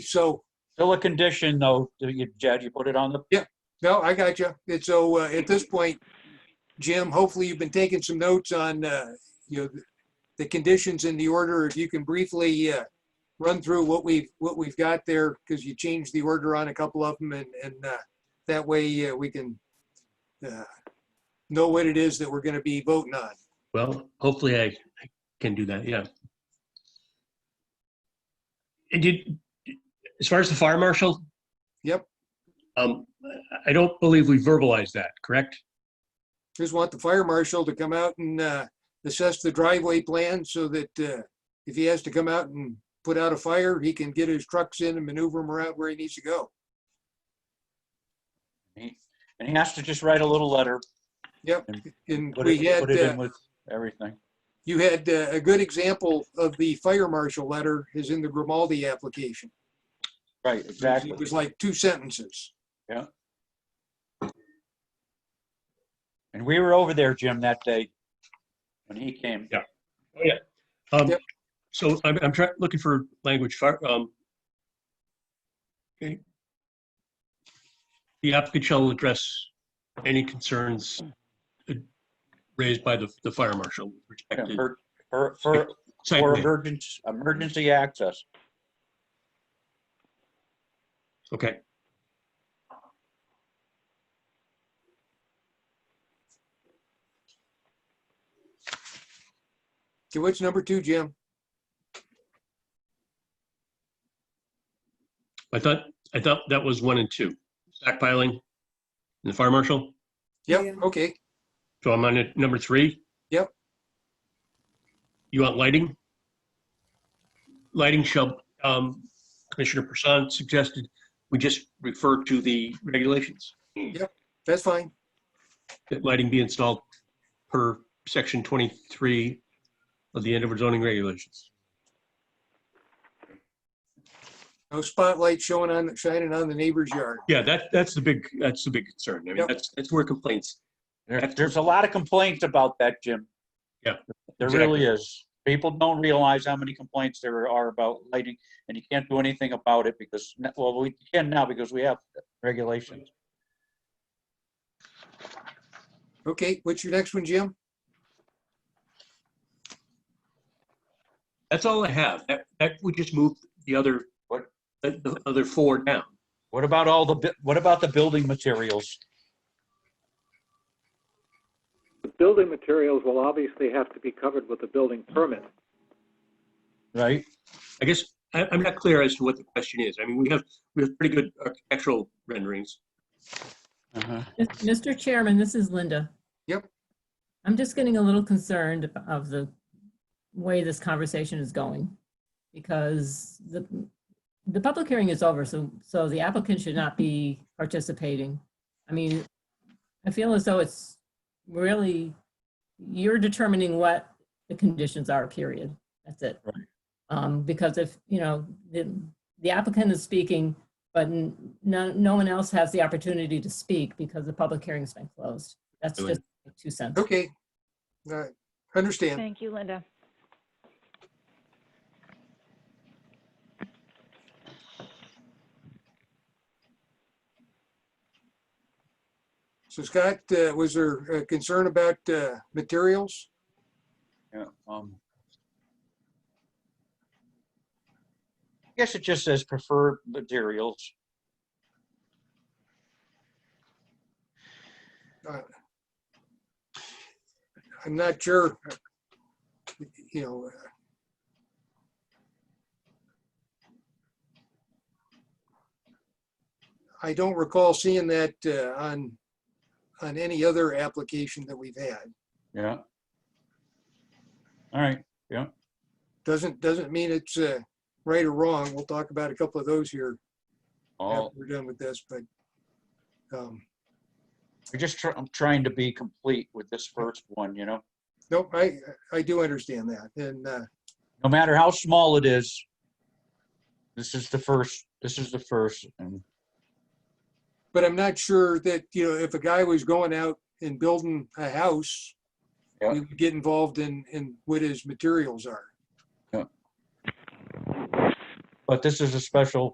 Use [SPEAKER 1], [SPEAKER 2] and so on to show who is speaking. [SPEAKER 1] So,
[SPEAKER 2] Still a condition, though, that you- Jed, you put it on the,
[SPEAKER 1] no, I got you. And so uh, at this point, Jim, hopefully you've been taking some notes on, uh, you know, the conditions in the order. If you can briefly uh, run through what we've, what we've got there, because you changed the order on a couple of them and, and uh, that way uh, we can uh, know what it is that we're going to be voting on.
[SPEAKER 3] Well, hopefully I I can do that, yeah. And did, as far as the fire marshal?
[SPEAKER 1] Yep.
[SPEAKER 3] Um, I don't believe we verbalized that, correct?
[SPEAKER 1] Just want the fire marshal to come out and uh, assess the driveway plan so that uh, if he has to come out and put out a fire, he can get his trucks in and maneuver them around where he needs to go.
[SPEAKER 2] and he has to just write a little letter,
[SPEAKER 1] Yep, and
[SPEAKER 2] put
[SPEAKER 1] we
[SPEAKER 2] it,
[SPEAKER 1] had,
[SPEAKER 2] put it
[SPEAKER 1] uh,
[SPEAKER 2] in with everything.
[SPEAKER 1] you had uh, a good example of the fire marshal letter is in the Grimaldi application.
[SPEAKER 2] Right, exactly.
[SPEAKER 1] It was like two sentences.
[SPEAKER 2] And we were over there, Jim, that day when he came.
[SPEAKER 3] Yeah. Um,
[SPEAKER 1] Yep.
[SPEAKER 3] so I'm, I'm trying, looking for language, fire, um. okay. The applicant shall address any concerns uh, raised by the, the fire marshal with respect to.
[SPEAKER 2] For, for, for
[SPEAKER 3] site
[SPEAKER 2] for
[SPEAKER 3] plan.
[SPEAKER 2] emergency, emergency access.
[SPEAKER 3] Okay.
[SPEAKER 1] Okay, what's number two, Jim?
[SPEAKER 3] I thought, I thought that was one and two, stockpiling and the fire marshal.
[SPEAKER 1] Yep, okay,
[SPEAKER 3] So I'm on it- number three.
[SPEAKER 1] Yep.
[SPEAKER 3] You want lighting? Lighting shall, um, Commissioner Person suggested, we just refer to the regulations.
[SPEAKER 1] that's fine.
[SPEAKER 3] That lighting be installed per section 23 of the end of zoning regulations.
[SPEAKER 1] No spotlight showing on, shining on the neighbor's yard.
[SPEAKER 3] Yeah, that, that's the big, that's the big concern. I mean,
[SPEAKER 1] Yep.
[SPEAKER 3] that's, that's where complaints.
[SPEAKER 2] There- There's a lot of complaints about that, Jim.
[SPEAKER 3] Yeah,
[SPEAKER 2] There
[SPEAKER 3] exactly.
[SPEAKER 2] really is. People don't realize how many complaints there are about lighting, and you can't do anything about it because, well, we can now because we have regulations.
[SPEAKER 1] Okay, what's your next one, Jim?
[SPEAKER 3] That's all I have. That, that would just move the other,
[SPEAKER 2] What?
[SPEAKER 3] the, the other four down.
[SPEAKER 2] What about all the, bu- what about the building materials?
[SPEAKER 4] The building materials will obviously have to be covered with a building permit.
[SPEAKER 2] Right.
[SPEAKER 3] I guess I, I'm not clear as to what the question is. I mean, we have, we have pretty good architectural renderings.
[SPEAKER 2] Uh-huh.
[SPEAKER 5] Mr. Chairman, this is Linda.
[SPEAKER 1] Yep.
[SPEAKER 5] I'm just getting a little concerned of the way this conversation is going because the, the public hearing is over, so, so the applicant should not be participating. I mean, I feel as though it's really, you're determining what the conditions are, period. That's it.
[SPEAKER 2] Right.
[SPEAKER 5] Um, because if, you know, the, the applicant is speaking, but n- no, no one else has the opportunity to speak because the public hearing's been closed. That's
[SPEAKER 3] Really?
[SPEAKER 5] just my two cents.
[SPEAKER 1] Okay. All right, understand.
[SPEAKER 6] Thank you, Linda.
[SPEAKER 1] So Scott, uh, was there uh, concern about uh, materials?
[SPEAKER 2] Yeah, um. I Guess it just says preferred materials.
[SPEAKER 1] I'm not sure. You know. uh, I don't recall seeing that uh, on, on any other application that we've had.
[SPEAKER 2] Yeah. All right,
[SPEAKER 1] Doesn't, doesn't mean it's uh, right or wrong. We'll talk about a couple of those here after
[SPEAKER 2] all,
[SPEAKER 1] we're done with this, but. um,
[SPEAKER 2] I just, try- I'm trying to be complete with this first one, you know?
[SPEAKER 1] Nope, I, I do understand that. And uh,
[SPEAKER 2] No matter how small it is. This is the first, this is the first, and,
[SPEAKER 1] But I'm not sure that, you know, if a guy was going out and building a house,
[SPEAKER 2] Yeah.
[SPEAKER 1] we would get involved in, in what his materials are.
[SPEAKER 2] but this is a special